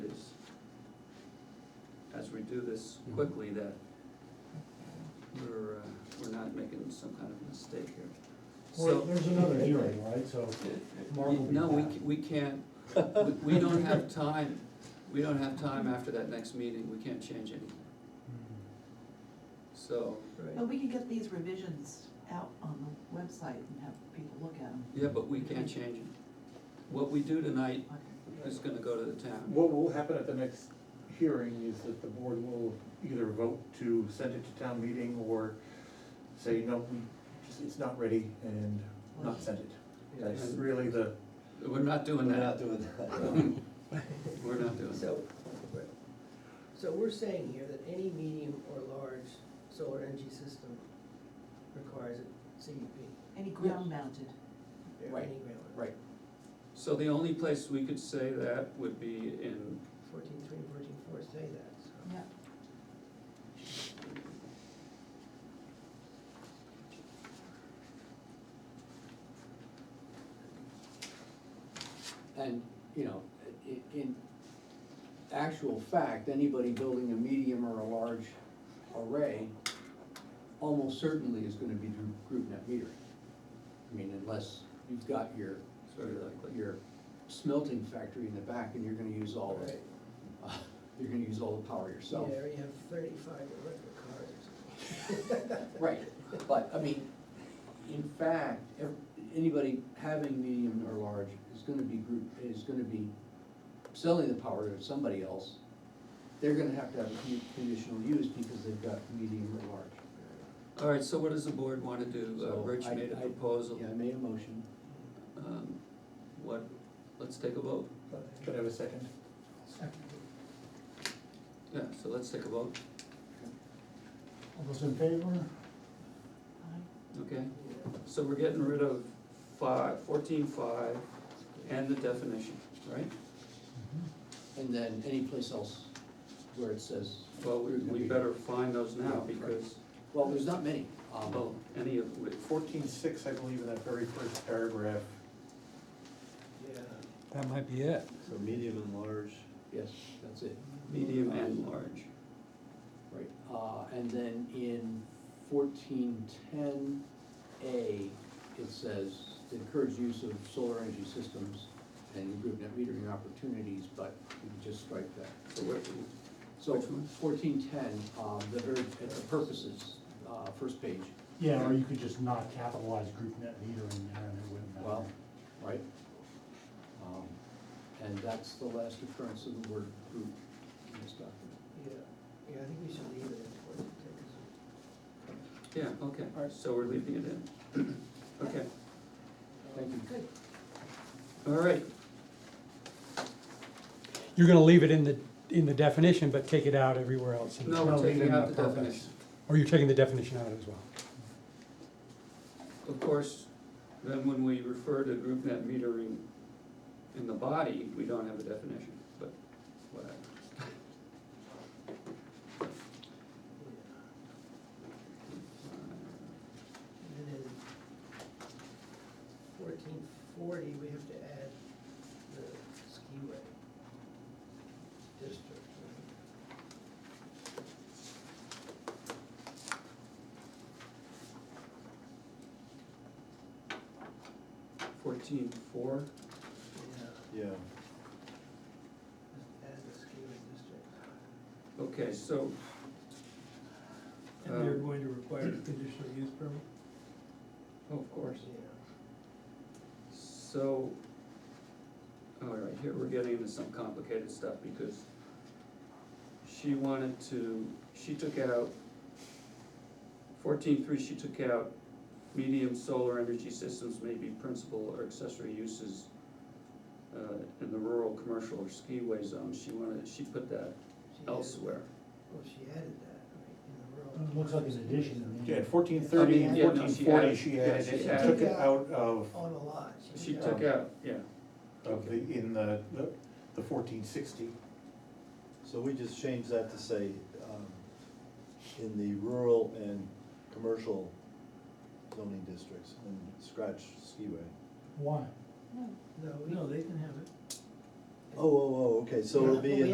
we do this quickly that we're, uh, we're not making some kind of mistake here. Well, So, there's another hearing, right, so Mark will be no, we, back. ca- we can't, we- we don't have time, we don't have time after that next meeting, we can't change anything. So, But we could get these revisions out on the website and have people look at them. yeah, but we can't change it. What we do tonight Okay. is gonna go to the town. What will happen at the next hearing is that the board will either vote to send it to town meeting or say, no, we, just- it's not ready and not send it. That's really the, We're not We're doing not that, doing that. we're not doing that. So, right. so we're saying here that any medium or large solar energy system requires a CUP. Any ground mounted, or Right, any ground. Right, So the only place we could say that would be in, Fourteen three and fourteen four say that, so. yeah. And, you know, i- in actual fact, anybody building a medium or a large array almost certainly is gonna be through group net metering. I mean, unless you've got your, Sort of like- your smelting factory in the back and you're gonna use all the, Right. you're gonna use all the power yourself. Yeah, or you have thirty-five electric cars or something. Right, but, I mean, in fact, ev- anybody having medium or large is gonna be group, is gonna be selling the power to somebody else. They're gonna have to have a con- conditional use because they've got medium or large. all right, so what does the board wanna do? Uh, So Rich I- made a I- proposal. Yeah, I made a motion. Um, What, let's take a vote. could I have a second? Yeah, so let's take a vote, All those in favor? Aye. okay? Yeah. So we're getting rid of five, fourteen five and the definition, right? And then any place else where it says, Well, we, we better find those now because, well, there's not many. um, well, any of, which- Fourteen six, I believe, in that very first paragraph. Yeah. That might be it. so medium and large. Yes, that's it. medium and large. Right, uh, and then in fourteen ten A, it says to encourage use of solar energy systems and group net metering opportunities, but you can just strike that. So what, So Which one? fourteen ten, um, the very, at the purposes, uh, first page, Yeah, or you could just not capitalize group net metering there and it wouldn't matter. well, right? Um, And that's the last occurrence of the word group in this document. Yeah, yeah, I think we should leave it at fourteen um, six. yeah, okay, so we're leaving it in. Okay, Thank you. Good. all right, You're gonna leave it in the, in the definition, but take it out everywhere else. in the no, we're Well, taking leaving out the the purpose. definition. Or you're taking the definition out as well. Of course, then when we refer to group net metering in the body, we don't have a definition, but whatever. Yeah. And then fourteen forty, we have to add the skiway district. Fourteen four, Yeah, Yeah. add the skiway district. okay, so. And they're um, going to require a conditional use permit? oh, Of course. Yeah, So, all right, here we're getting into some complicated stuff because she wanted to, she took out, fourteen three, she took out medium solar energy systems may be principal or accessory uses uh, in the rural, commercial, or skiway zone, she wanted, she put that she added- elsewhere. Well, she added that, right, in the rural. It looks like an addition in the. Yeah, fourteen thirty and yeah, no, fourteen she forty, added- she yeah, added, she it. she added. took it out of, On a lot. She did took that. out, yeah, of the, in the, the- the fourteen sixty. So we just changed that to say, um, in the rural and commercial zoning districts, and scratch skiway. Why? No. No, we- no, they can have it. Oh, oh, oh, okay, so it'll Yeah, be we in